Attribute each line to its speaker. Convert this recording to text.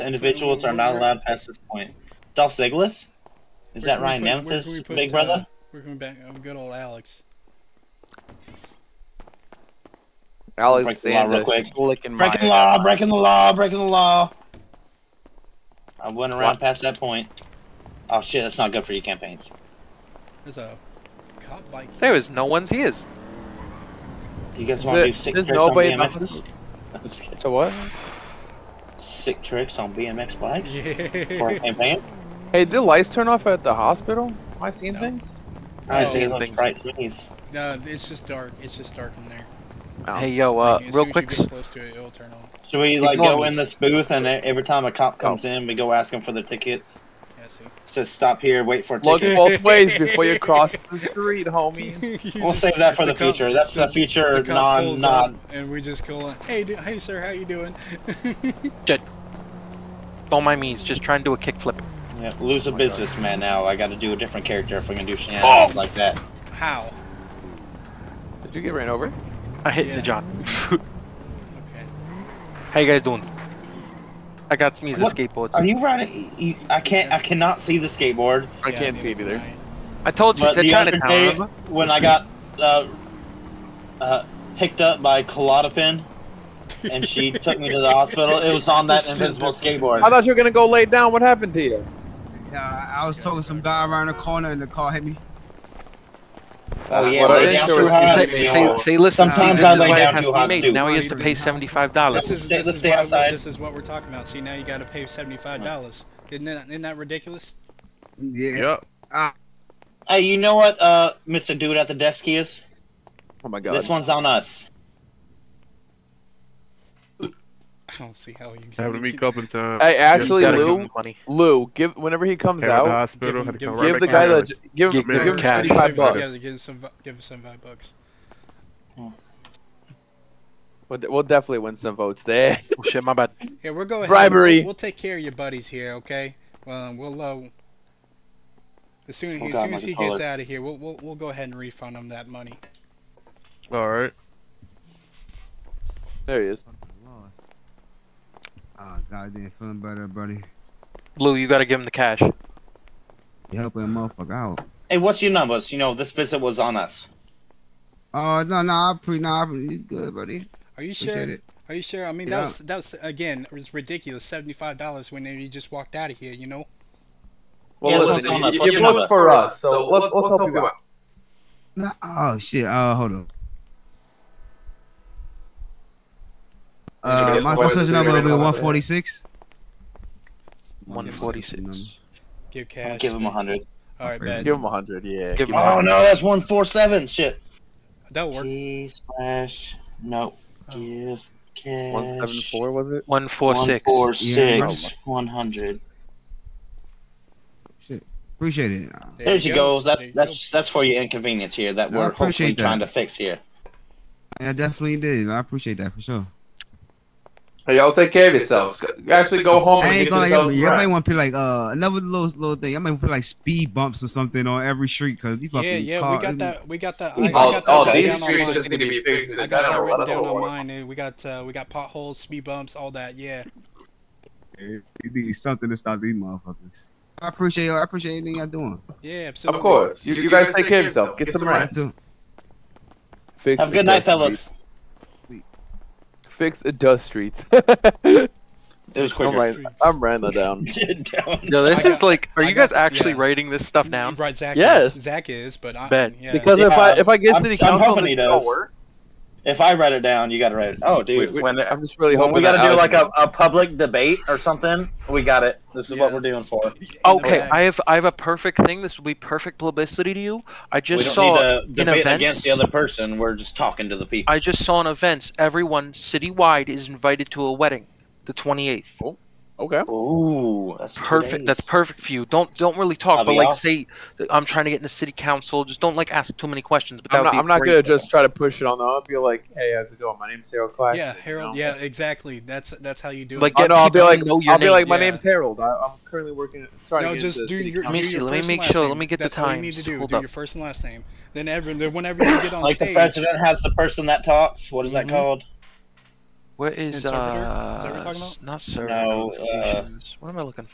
Speaker 1: individuals are not allowed past this point. Dolph Ziggler? Is that
Speaker 2: Where can we
Speaker 1: Ryan
Speaker 2: put- where can we
Speaker 1: Nemeth's
Speaker 2: put,
Speaker 1: big
Speaker 2: uh,
Speaker 1: brother?
Speaker 2: We're going back. Oh, good old Alex.
Speaker 1: Break the law real
Speaker 3: Alexander,
Speaker 1: quick.
Speaker 3: Shulik, and
Speaker 1: breaking the
Speaker 3: Maya.
Speaker 1: law, breaking the law, breaking the law. I went around
Speaker 3: What?
Speaker 1: past that point. Oh shit, that's not good for your campaigns.
Speaker 2: There's a cop bike.
Speaker 4: There is no one's ears.
Speaker 1: You guys
Speaker 3: Is
Speaker 1: want to
Speaker 3: it-
Speaker 1: do sick
Speaker 3: there's
Speaker 1: tricks on
Speaker 3: nobody in the
Speaker 1: BMX?
Speaker 3: office?
Speaker 1: I'm just kidding.
Speaker 3: So what?
Speaker 1: Sick tricks on BMX bikes for a
Speaker 2: Yeah.
Speaker 1: campaign.
Speaker 3: Hey, did the lights turn off at the hospital? Am I seeing
Speaker 2: No.
Speaker 3: things?
Speaker 1: I
Speaker 2: Oh.
Speaker 1: see those
Speaker 4: Things.
Speaker 1: bright things.
Speaker 2: no, it's just dark. It's just dark in there.
Speaker 3: Oh.
Speaker 4: Hey, yo, uh,
Speaker 2: Like, as
Speaker 4: real
Speaker 2: soon
Speaker 4: quick,
Speaker 2: As you get close to it, it'll turn on.
Speaker 1: Should we like go
Speaker 4: Ignore
Speaker 1: in
Speaker 4: me.
Speaker 1: this booth and e- every time a cop comes in, we go ask him for the tickets?
Speaker 2: Yeah, see.
Speaker 1: It says stop here, wait for a
Speaker 3: Look
Speaker 1: ticket.
Speaker 2: Okay.
Speaker 3: both ways before you cross the street, homies.
Speaker 2: You
Speaker 1: We'll
Speaker 2: just-
Speaker 1: save that for the,
Speaker 2: cop-
Speaker 1: future. That's the future
Speaker 2: the uh, cop
Speaker 1: non
Speaker 2: pulls
Speaker 1: non.
Speaker 2: up, And we just go like, hey, du- hey, sir, how you doing?
Speaker 4: on my knees, just try and do a kickflip.
Speaker 1: Yeah, lose a
Speaker 3: my God.
Speaker 1: businessman now. I got to do a different character if I'm gonna do shenanigans like that.
Speaker 2: how?
Speaker 3: Did you get ran over?
Speaker 4: I hit
Speaker 2: Yeah.
Speaker 4: the John.
Speaker 2: Okay.
Speaker 4: How you guys doing? I got smees of
Speaker 1: What?
Speaker 4: skateboards.
Speaker 1: Are you riding? You, I can't. I cannot see the skateboard.
Speaker 3: I
Speaker 2: Yeah,
Speaker 3: can't see it
Speaker 2: neither
Speaker 3: either.
Speaker 2: can I.
Speaker 4: I told you,
Speaker 1: But
Speaker 4: said
Speaker 1: the other
Speaker 4: Chinatown.
Speaker 1: day,
Speaker 4: remember?
Speaker 1: when I got uh, uh, picked up by Klodopin, and she took me to the hospital, it was on that
Speaker 2: It's
Speaker 1: invincible
Speaker 2: different.
Speaker 1: skateboard.
Speaker 3: I thought you were gonna go lay down. What happened to you?
Speaker 5: Yeah, I I was talking to some guy around the corner and the car hit me.
Speaker 1: oh yeah,
Speaker 3: What
Speaker 1: lay
Speaker 3: I
Speaker 1: down
Speaker 3: insurance
Speaker 1: too high,
Speaker 4: Say,
Speaker 3: company
Speaker 1: see,
Speaker 4: say, say, listen,
Speaker 1: Sometimes
Speaker 4: see, this
Speaker 1: I
Speaker 4: is
Speaker 1: lay
Speaker 4: why it
Speaker 1: down
Speaker 4: has
Speaker 1: too
Speaker 4: to be
Speaker 1: hard,
Speaker 4: made.
Speaker 1: too.
Speaker 4: Now he has to pay seventy-five
Speaker 2: This
Speaker 4: dollars.
Speaker 2: is,
Speaker 1: Stay-
Speaker 2: this
Speaker 1: let's
Speaker 2: is
Speaker 1: stay
Speaker 2: why we-
Speaker 1: outside.
Speaker 2: This is what we're talking about. See, now you got to pay seventy-five dollars. Isn't that isn't that ridiculous?
Speaker 5: Yeah.
Speaker 6: Yep.
Speaker 1: Hey, you know what, uh, Mr. Dude at the desk is?
Speaker 3: Oh my god.
Speaker 1: This one's on us.
Speaker 2: I don't see how you.
Speaker 6: Having to
Speaker 2: you
Speaker 6: meet up in time.
Speaker 3: Hey, actually,
Speaker 6: gotta
Speaker 3: Lou,
Speaker 4: money.
Speaker 3: Lou, give whenever he comes
Speaker 6: Came out of the
Speaker 3: out,
Speaker 6: hospital.
Speaker 2: Give
Speaker 6: had to
Speaker 2: him-
Speaker 6: come
Speaker 2: give
Speaker 6: right
Speaker 3: give
Speaker 6: back
Speaker 3: the
Speaker 6: in
Speaker 3: guy
Speaker 6: the
Speaker 3: the give
Speaker 4: Give
Speaker 3: give
Speaker 6: him
Speaker 3: him
Speaker 6: cash.
Speaker 3: seventy five
Speaker 2: Yeah,
Speaker 3: bucks.
Speaker 2: they give us some, bu- give us seventy-five bucks.
Speaker 3: We'll, de- we'll definitely win some votes there.
Speaker 4: Oh, shit, my bad.
Speaker 2: Yeah, we'll go ahead. and-
Speaker 3: Bribery.
Speaker 2: We'll, we'll take care of your buddies here, okay? Well, we'll uh, as soon,
Speaker 1: Oh,
Speaker 2: as,
Speaker 1: God,
Speaker 2: soon
Speaker 1: my
Speaker 2: as he gets
Speaker 1: controller.
Speaker 2: out of here, we'll, we'll we'll go ahead and refund him that money.
Speaker 6: All right.
Speaker 3: there he is.
Speaker 5: Oh, goddamn, feeling better, buddy.
Speaker 4: Lou, you gotta give him the cash.
Speaker 5: You helping a motherfucker out.
Speaker 1: Hey, what's your numbers? You know, this visit was on us.
Speaker 5: Oh, no, no, I pre, nah, I- you good, buddy.
Speaker 2: Are you sure?
Speaker 5: Appreciate it.
Speaker 2: Are you sure? I mean, that
Speaker 5: Yeah.
Speaker 2: was that was again, it was ridiculous. Seventy-five dollars when you just walked out of here, you know?
Speaker 3: Well,
Speaker 1: Yeah,
Speaker 3: listen,
Speaker 1: listen,
Speaker 3: you-
Speaker 1: listen,
Speaker 3: you,
Speaker 1: listen.
Speaker 3: voted for us, so let's, let's, help you out.
Speaker 5: Nah, oh, shit. Uh, hold on. Uh,
Speaker 3: Did you get
Speaker 5: my
Speaker 3: the
Speaker 5: social
Speaker 3: voice
Speaker 5: number will be
Speaker 3: recorded?
Speaker 5: 146.
Speaker 4: One forty-six.
Speaker 2: Give cash.
Speaker 1: Give him a hundred.
Speaker 2: All right,
Speaker 5: Alright.
Speaker 2: bad.
Speaker 3: Give him a hundred. Yeah.
Speaker 4: Give him
Speaker 1: Oh no, that's one four seven. Shit.
Speaker 2: That'll work.
Speaker 1: T slash no.
Speaker 2: Oh.
Speaker 1: Give cash.
Speaker 3: One seven four was it?
Speaker 4: One four six.
Speaker 1: Four
Speaker 5: Yeah.
Speaker 1: six one hundred.
Speaker 5: Shit. Appreciate it.
Speaker 1: There you go. That's
Speaker 2: There you
Speaker 1: that's that's for your inconvenience here that
Speaker 5: No, I
Speaker 1: we're hopefully
Speaker 5: appreciate that.
Speaker 1: trying to fix here.
Speaker 5: I definitely did. I appreciate that for sure.
Speaker 3: Hey, y'all take care of yourselves. Actually, go home
Speaker 5: I
Speaker 3: and
Speaker 5: ain't
Speaker 3: get
Speaker 5: gonna like,
Speaker 3: yourselves
Speaker 5: y'all might
Speaker 3: rest.
Speaker 5: want to put like uh another little little thing. I might put like speed bumps or something on every street because you
Speaker 2: Yeah,
Speaker 5: fucking
Speaker 2: yeah,
Speaker 5: car-
Speaker 2: we got that. We got that. I, I
Speaker 3: All,
Speaker 2: got that
Speaker 3: all
Speaker 2: written
Speaker 3: these
Speaker 2: down on
Speaker 3: streets
Speaker 2: mine.
Speaker 3: just need to be fixed
Speaker 2: I
Speaker 3: in
Speaker 2: got that
Speaker 3: general.
Speaker 2: written
Speaker 3: That's
Speaker 2: down
Speaker 3: all.
Speaker 2: on
Speaker 3: we're-
Speaker 2: mine, dude. We got uh, we got potholes, speed bumps, all that. Yeah.
Speaker 5: You need something to stop these motherfuckers. I appreciate y'all. I appreciate anything y'all doing.
Speaker 2: Yeah, absolutely.
Speaker 3: Of course. You, you guys take care of yourself. Get some
Speaker 5: I
Speaker 3: rest.
Speaker 5: do.
Speaker 3: Fix
Speaker 1: Have a
Speaker 3: the
Speaker 1: good night,
Speaker 3: dust streets.
Speaker 1: fellas.
Speaker 3: Fix the dust streets. I'm
Speaker 1: It was quicker.
Speaker 3: writing, I'm writing that down.
Speaker 1: Down.
Speaker 4: Yo, this
Speaker 2: I
Speaker 4: is
Speaker 2: got-
Speaker 4: like, are
Speaker 2: I
Speaker 4: you
Speaker 2: got
Speaker 4: guys
Speaker 2: the-
Speaker 4: actually
Speaker 2: yeah.
Speaker 4: writing this stuff down?
Speaker 2: Right, Zach
Speaker 3: Yes.
Speaker 2: is. Zach is, but I.
Speaker 4: Bet.
Speaker 2: Yeah.
Speaker 3: Because if I
Speaker 1: Yeah,
Speaker 3: if I get
Speaker 1: I'm-
Speaker 3: city
Speaker 1: I'm
Speaker 3: council,
Speaker 1: hoping
Speaker 3: this
Speaker 1: he
Speaker 3: don't
Speaker 1: does.
Speaker 3: work.
Speaker 1: If I write it down, you gotta write it. Oh, dude.
Speaker 3: Wait, wait,
Speaker 1: when
Speaker 3: I'm just really
Speaker 1: when
Speaker 3: hoping
Speaker 1: we
Speaker 3: that
Speaker 1: gotta do like
Speaker 3: Alex
Speaker 1: a,
Speaker 3: won't.
Speaker 1: a public debate or something, we got it. This is what
Speaker 2: Yeah.
Speaker 1: we're doing for.
Speaker 4: Oh, Okay,
Speaker 2: Yeah.
Speaker 4: I have I have a perfect thing. This will be perfect publicity to you. I
Speaker 1: we
Speaker 4: just
Speaker 1: don't
Speaker 4: saw
Speaker 1: need to
Speaker 4: in
Speaker 1: debate
Speaker 4: events-
Speaker 1: against the other person. We're just talking to the people.
Speaker 4: I just saw in events everyone citywide is invited to a wedding, the 28th.
Speaker 3: okay.
Speaker 1: Ooh, that's two
Speaker 4: Perfect. That's
Speaker 1: days.
Speaker 4: perfect for you. Don't don't really talk,
Speaker 1: I'll
Speaker 4: but
Speaker 1: be
Speaker 4: like
Speaker 1: off.
Speaker 4: say that I'm trying to get in the city council. Just don't like ask too many questions. But that
Speaker 3: I'm
Speaker 4: would
Speaker 3: not.
Speaker 4: be
Speaker 3: I'm not
Speaker 4: great.
Speaker 3: gonna just try to push it on. the I'll be like, hey, how's it going? My name's Harold Clash.
Speaker 2: Yeah, Harold. Yeah, exactly. That's that's how you do
Speaker 4: Like,
Speaker 2: it.
Speaker 3: Oh,
Speaker 4: get
Speaker 3: no, I'll be
Speaker 4: people to
Speaker 3: like,
Speaker 4: know
Speaker 3: I'll
Speaker 4: your
Speaker 3: be like, my
Speaker 2: name.
Speaker 3: name's Harold. I, I'm currently working, trying
Speaker 2: No,
Speaker 3: to get
Speaker 2: just
Speaker 3: into
Speaker 2: do
Speaker 3: city
Speaker 2: your.
Speaker 3: council."
Speaker 4: Let me
Speaker 2: do
Speaker 4: see,
Speaker 2: your
Speaker 4: let me
Speaker 2: first
Speaker 4: make
Speaker 2: and last
Speaker 4: sure, let
Speaker 2: name.
Speaker 4: me get the
Speaker 2: That's all you need
Speaker 4: times.
Speaker 2: to do.
Speaker 4: Hold
Speaker 2: Do
Speaker 4: up.
Speaker 2: your first and last name. Then every, then whenever you get on
Speaker 1: Like the
Speaker 2: stage,
Speaker 1: president has the person that talks. What is
Speaker 2: Mhm.
Speaker 1: that called?
Speaker 4: Where is
Speaker 2: Interpreter?
Speaker 4: uh?
Speaker 2: Is that what we're talking about?
Speaker 4: Not sir.
Speaker 1: No, uh,
Speaker 4: What am I looking for?